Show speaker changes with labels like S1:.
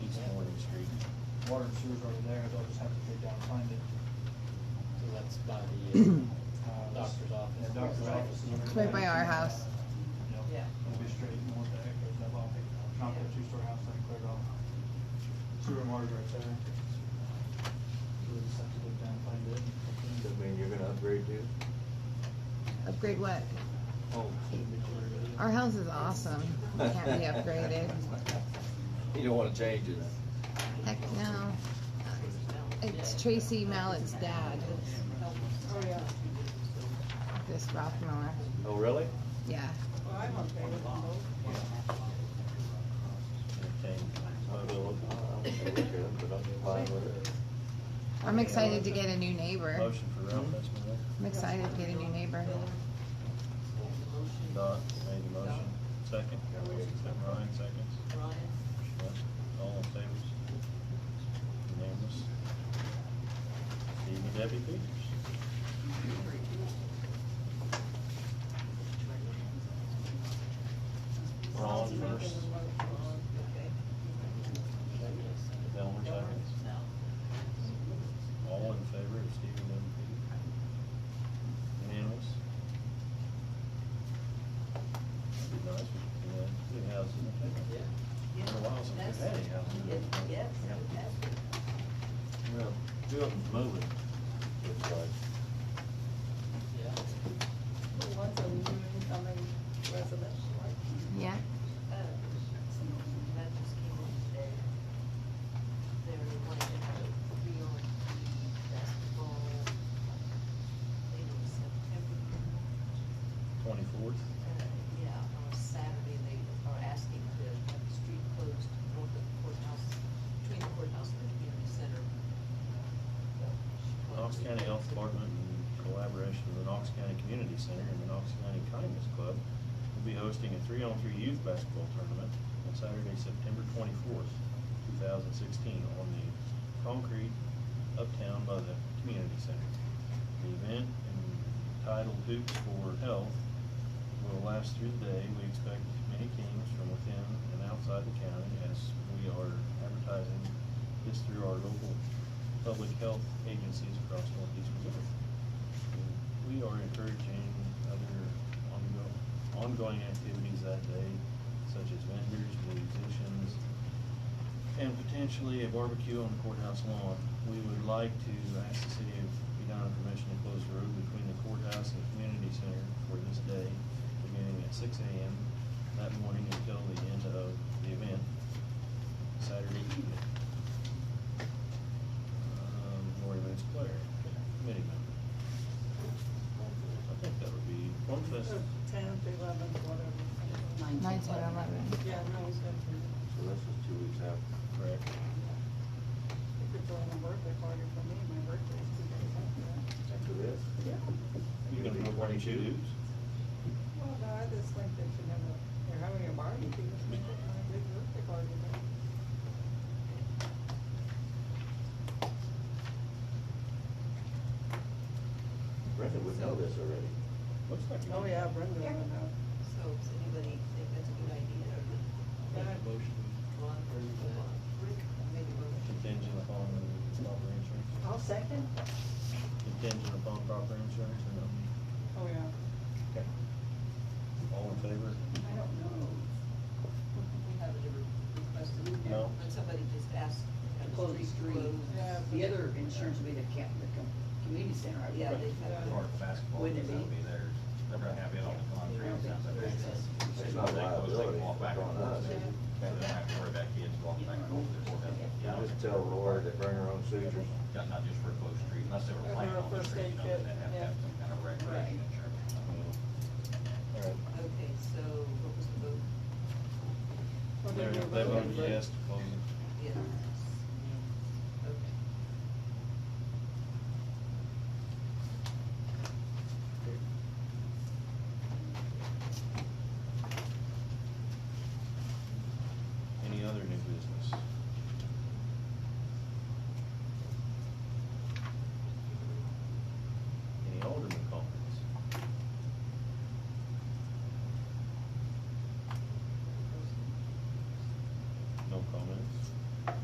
S1: water and sewer's over there, they'll just have to dig down and find it.
S2: So that's by the uh,
S1: Uh,
S2: doctor's office.
S1: Yeah, doctor's office. is over
S3: Right
S1: there.
S3: by our house.
S1: Yep.
S4: Yeah.
S1: It'll be straight north there, goes that long, not that two-story house that cleared off. Sewer and water's right there. So we just have to dig down and find it.
S5: Does that mean you're gonna upgrade too?
S3: Upgrade what?
S2: Oh, should be clear.
S3: Our house is awesome. It Can't be upgraded.
S5: You don't wanna change it.
S3: Heck no. It's Tracy Mallett's dad,
S4: Oh, yeah.
S3: this Rothmiller.
S5: Oh, really?
S3: Yeah.
S4: Well, I'm okay with those.
S5: Okay. I'm gonna look- I'm gonna look at it, but I'm fine with it.
S3: I'm excited to get a new neighbor.
S6: Motion for Ralph Esposito.
S3: I'm excited to get a new neighbor.
S6: Dot made the motion. Second. Ryan seconds.
S4: Ryan,
S6: All in favor? Unanimous. Steve and Debbie Peters. Ron first,
S4: okay.
S6: Delmer seconds. All in favor of Steve and Debbie Peters? Unanimous? That'd be nice, we could, uh, do houses in town.
S4: Yeah.
S6: Been a while since we've had any houses.
S4: Yes, yes, yes.
S5: Well,
S6: Two of them's moving.
S5: it's like,
S2: Yeah.
S4: Well, Once a week, I mean, residential, like,
S3: Yeah.
S4: uh, that just came in today. They were wanting to have a real festival, late in September.
S6: Twenty-fourth?
S4: Uh, Yeah, on a Saturday, they are asking to have the street closed north of the courthouse, between the courthouse and the community center.
S6: Knox County Health Department in collaboration with the Knox County Community Center and the Knox County Kindness Club will be hosting a three-on-three youth basketball tournament on Saturday, September twenty-fourth, two thousand sixteen, on the concrete uptown by the community center. The event entitled Hoops for Health will last through the day. We expect many teams from within and outside the county as we are advertising this through our local public health agencies across northeast Missouri. We are encouraging other ongoing, ongoing activities that day, such as vendors, musicians, and potentially a barbecue on the courthouse lawn. We would like to ask the city of Edina permission to close the road between the courthouse and the community center for this day, beginning at six AM that morning until the end of the event, Saturday evening. Um, Lori Vance Claire, committee member. I think that would be one fest,
S4: Tenth, eleventh, whatever.
S3: Nine to eleven.
S4: Yeah, no, it's good for you.
S5: so this is two weeks after.
S6: correct?
S4: If you're throwing a birthday party for me, my birthday's two days after that.
S5: After this?
S6: You're gonna put one in shoes?
S4: Well, no, I just think they should have a, they're having a barbecue, it's a big birthday party, but.
S5: Brenda would know this already.
S6: Looks like. you-
S4: Brenda
S7: would know.
S4: So, does anybody think that's a good idea?
S2: Make a motion.
S4: Ron, maybe we'll-
S6: Contingent upon proper insurance,
S7: I'll second.
S6: contingent upon proper insurance or no?
S7: Oh, yeah.
S6: Okay. All in favor?
S7: I don't know.
S4: We have a request,
S6: No.
S4: when somebody just asked,
S7: To
S4: have
S7: close the street.
S4: closed.
S7: Yeah,
S4: The
S7: but-
S4: other insurance
S7: would be the camp, the com- community center, I
S4: Yeah, they have.
S8: Or basketball,
S7: Wouldn't it
S8: because that'll
S7: be?
S8: be theirs. They're gonna have it on the concrete.
S7: Yeah.
S8: so they- they-
S5: It's not
S8: they go- They
S5: liability,
S8: can walk back
S5: it's
S8: and
S5: on
S8: forth.
S5: us.
S8: They don't have to worry about kids walking back and forth. They're still having-
S5: You just tell Lori to bring her own sutures.
S8: Yeah, Not just for a closed street, unless they were playing on the street, you know, then they have to have some kind of recreation insurance.
S6: All right.
S4: Okay, so what was the vote?
S6: They they voted yes to close it.